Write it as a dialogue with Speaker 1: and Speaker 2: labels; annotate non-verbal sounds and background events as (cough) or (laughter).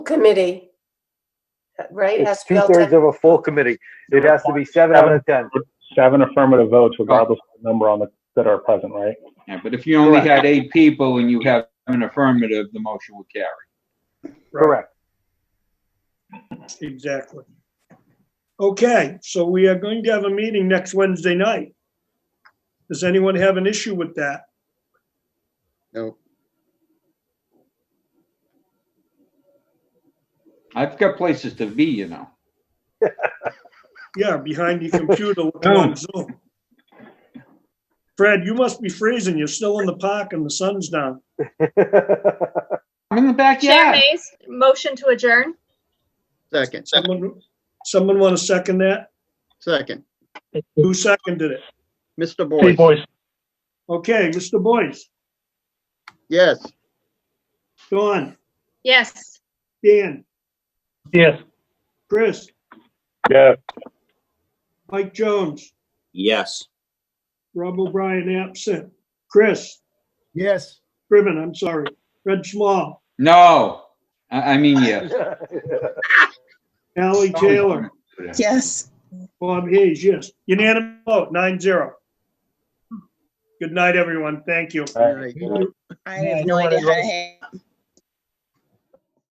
Speaker 1: committee, right? Has
Speaker 2: It's
Speaker 1: to be all
Speaker 2: two-thirds
Speaker 1: ten-
Speaker 2: of a full committee. It has to be seven out of 10.
Speaker 3: seven affirmative votes regardless of the number on the, that are present, right?
Speaker 4: Yeah, but if you only
Speaker 2: Correct.
Speaker 4: had eight people and you have an affirmative, the motion would carry.
Speaker 2: Correct.
Speaker 5: Exactly. Okay, so we are going to have a meeting next Wednesday night. Does anyone have an issue with that?
Speaker 6: No,
Speaker 4: I've got places to be, you know.
Speaker 5: Yeah, behind your computer looking on Zoom. Fred, you must be freezing. You're still in the park and the sun's down.
Speaker 2: (laughs)
Speaker 4: I'm in the
Speaker 7: Chair
Speaker 4: backyard.
Speaker 7: Mays, motion to adjourn.
Speaker 6: second,
Speaker 5: Someone, someone want to second that?
Speaker 6: second.
Speaker 5: Who seconded it?
Speaker 6: Mr. Boyce,
Speaker 3: boys.
Speaker 5: Okay, Mr. Boyce,
Speaker 6: yes.
Speaker 5: Dawn,
Speaker 7: Yes.
Speaker 5: Dan,
Speaker 3: Yes.
Speaker 5: Chris,
Speaker 2: (laughs)
Speaker 3: Yeah.
Speaker 5: Mike Jones,
Speaker 8: Yes.
Speaker 5: Rob O'Brien absent, Chris,
Speaker 6: Yes.
Speaker 5: Scriven, I'm sorry, Fred Small,
Speaker 4: No, I, I mean, yes.
Speaker 5: Ally Taylor,
Speaker 9: Yes.
Speaker 5: Bob Hayes, yes. Unanimous vote, nine zero. Good night, everyone. Thank you.
Speaker 6: All right.
Speaker 9: I have no idea how to hang.